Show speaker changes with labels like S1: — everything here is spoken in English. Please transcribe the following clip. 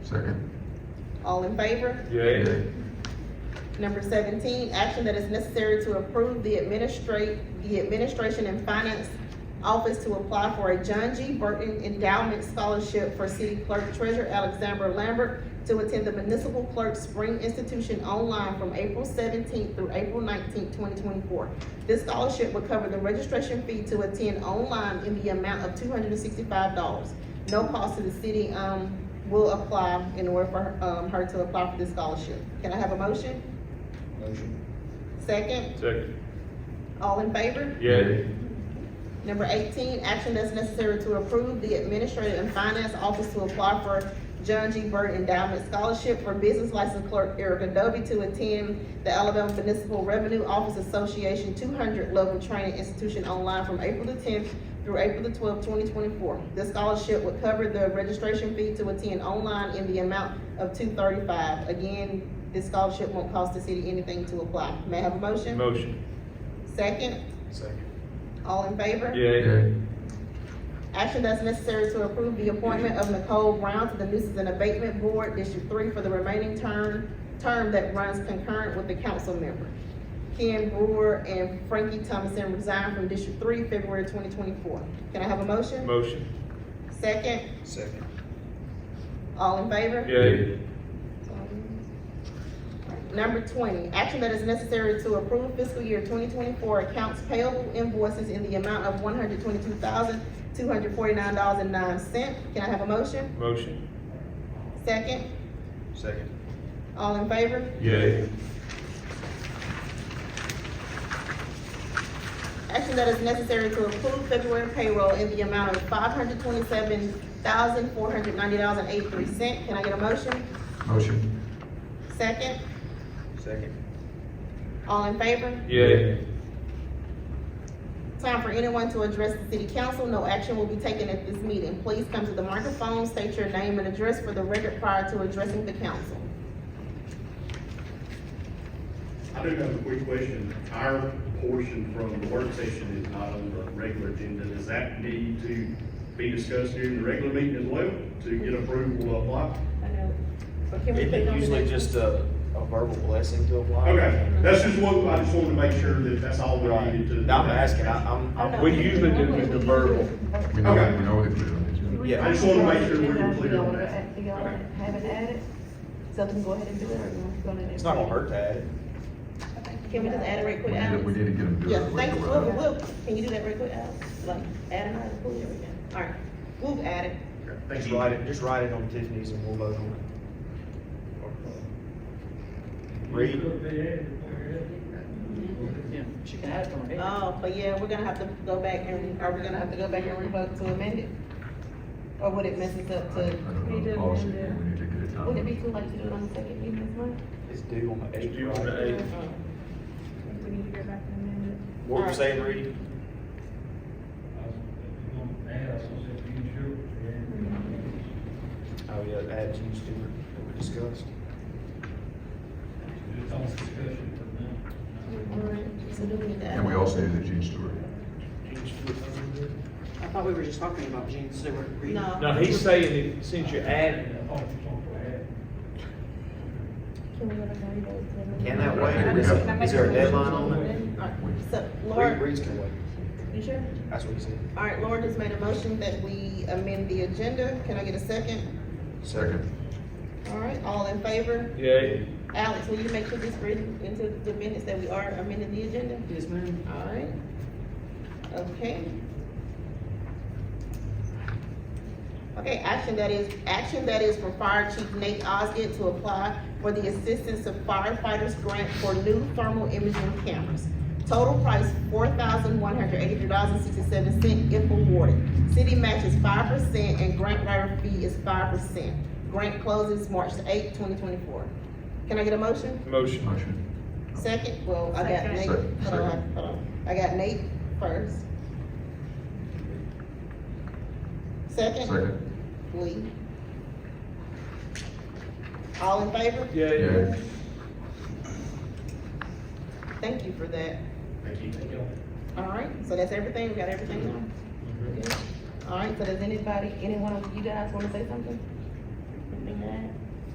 S1: Second.
S2: All in favor?
S3: Yay.
S2: Number seventeen, action that is necessary to approve the administrate, the Administration and Finance Office to apply for a John G. Burton Endowment Scholarship for City Clerk Treasurer Alexandra Lambert to attend the Municipal Clerk Spring Institution online from April seventeenth through April nineteenth, twenty twenty-four. This scholarship will cover the registration fee to attend online in the amount of two hundred and sixty-five dollars. No cost to the city, um, will apply in order for, um, her to apply for this scholarship. Can I have a motion?
S4: Motion.
S2: Second,
S3: Second.
S2: all in favor?
S3: Yay.
S2: Number eighteen, action that's necessary to approve the Administrative and Finance Office to apply for John G. Burt Endowment Scholarship for Business License Clerk Erica Dovey to attend the Alabama Municipal Revenue Office Association two hundred level training institution online from April the tenth through April the twelfth, twenty twenty-four. This scholarship would cover the registration fee to attend online in the amount of two thirty-five. Again, this scholarship won't cost the city anything to apply. May I have a motion?
S3: Motion.
S2: Second?
S4: Second.
S2: All in favor?
S3: Yay.
S2: Action that's necessary to approve the appointment of Nicole Brown to the Nuisance and Abatement Board, District Three, for the remaining term, term that runs concurrent with the council member. Ken Brewer and Frankie Thomason resigned from District Three, February twenty twenty-four. Can I have a motion?
S3: Motion.
S2: Second,
S4: Second.
S2: all in favor?
S3: Yay.
S2: Number twenty, action that is necessary to approve fiscal year twenty twenty-four accounts payable invoices in the amount of one hundred twenty-two thousand, two hundred forty-nine dollars and nine cents. Can I have a motion?
S3: Motion.
S2: Second,
S4: Second.
S2: all in favor?
S3: Yay.
S2: Action that is necessary to approve February payroll in the amount of five hundred twenty-seven thousand, four hundred ninety dollars and eighty-three cent. Can I get a motion?
S1: Motion.
S2: Second,
S4: Second.
S2: all in favor?
S3: Yay.
S2: Time for anyone to address the city council. No action will be taken at this meeting. Please come to the microphone, state your name and address for the record prior to addressing the council.
S5: I do have a quick question. Our portion from the work session is not on the regular agenda. Does that need to be discussed during the regular meeting as well to get approval of what?
S2: I know, but can we put it
S4: It's
S2: on the
S4: usually
S2: next?
S4: just a, a verbal blessing to apply.
S5: Okay, that's just what, I just wanted to make sure that that's all we
S4: Right.
S5: needed to.
S4: Now I'm asking, I- I'm,
S2: I know.
S4: I'm,
S3: We usually do just a verbal.
S1: We know,
S5: Okay.
S1: we know what it is on the agenda.
S4: yeah.
S5: I just wanted to make sure we were
S6: Do
S5: clear
S6: y'all
S5: on
S6: wanna
S5: that.
S6: add- do y'all wanna have it added? So we can go ahead and do it, or you want to go to the-
S4: it's not gonna hurt to add it.
S2: Can we just add a right
S1: We
S2: quick,
S1: need, to- we
S2: Alex?
S1: need to get them to do
S2: Yeah,
S1: it.
S2: thank you,
S1: regular.
S2: we'll, we'll, can you do that right quick, Alex? Like, add another, pull everything. All right, we'll add it.
S5: Okay, Thank
S4: Just
S5: you.
S4: write it, just write it on Tiffany's and we'll vote on it. Read,
S7: She can add from here.
S2: Oh, but yeah, we're gonna have to go back and, are we gonna have to go back and revoke to amend it? Or would it mess us up
S1: I
S2: to,
S1: don't know the policy, we need to get it
S6: Would it be
S1: done.
S6: too late to do it on the second meeting this month?
S4: it's due on the eighth.
S3: due on the
S4: right?
S3: eighth.
S6: We need to go back and amend
S4: What you saying, Reed? Oh, yeah, add you, Stewart, that we discussed.
S2: so do we need to add?
S1: And we also need the Gene Stewart.
S7: I thought we were just talking about Gene Stewart. Reed.
S2: No.
S3: Now, he's saying that since you're adding,
S6: it. Can we go back and revote?
S4: Can that
S1: I think
S4: wait?
S1: we
S4: Is
S1: have-
S4: it- is there a deadline on it?
S2: All right, So
S4: Reed,
S2: Laura,
S4: Reed's gonna wait.
S2: you sure?
S4: That's what he said.
S2: All right, Laura just made a motion that we amend the agenda. Can I get a second?
S1: Second.
S2: All right, all in favor?
S3: yay.
S2: Alex, will you make sure this written into the minutes that we are amending the agenda?
S7: Yes, ma'am.
S2: All right. Okay. Okay, action that is, action that is for Fire Chief Nate Osgood to apply for the Assistance of Firefighters Grant for new thermal imaging cameras. Total price four thousand one hundred eighty-three dollars and sixty-seven cent if awarded. City match is five percent and grant writer fee is five percent. Grant closes March eighth, twenty twenty-four. Can I get a motion?
S3: Motion.
S1: Motion.
S2: Second, well, I got
S6: Second.
S2: Nate,
S1: Second,
S2: hold on, hold on, I got Nate first. Second,
S1: Second.
S2: Lee. All in favor?
S3: Yay.
S1: Yeah.
S2: Thank you for that.
S5: Thank you.
S2: All right, so that's everything, we got everything done? All right, so does anybody, anyone of you guys wanna say something? Anything to add?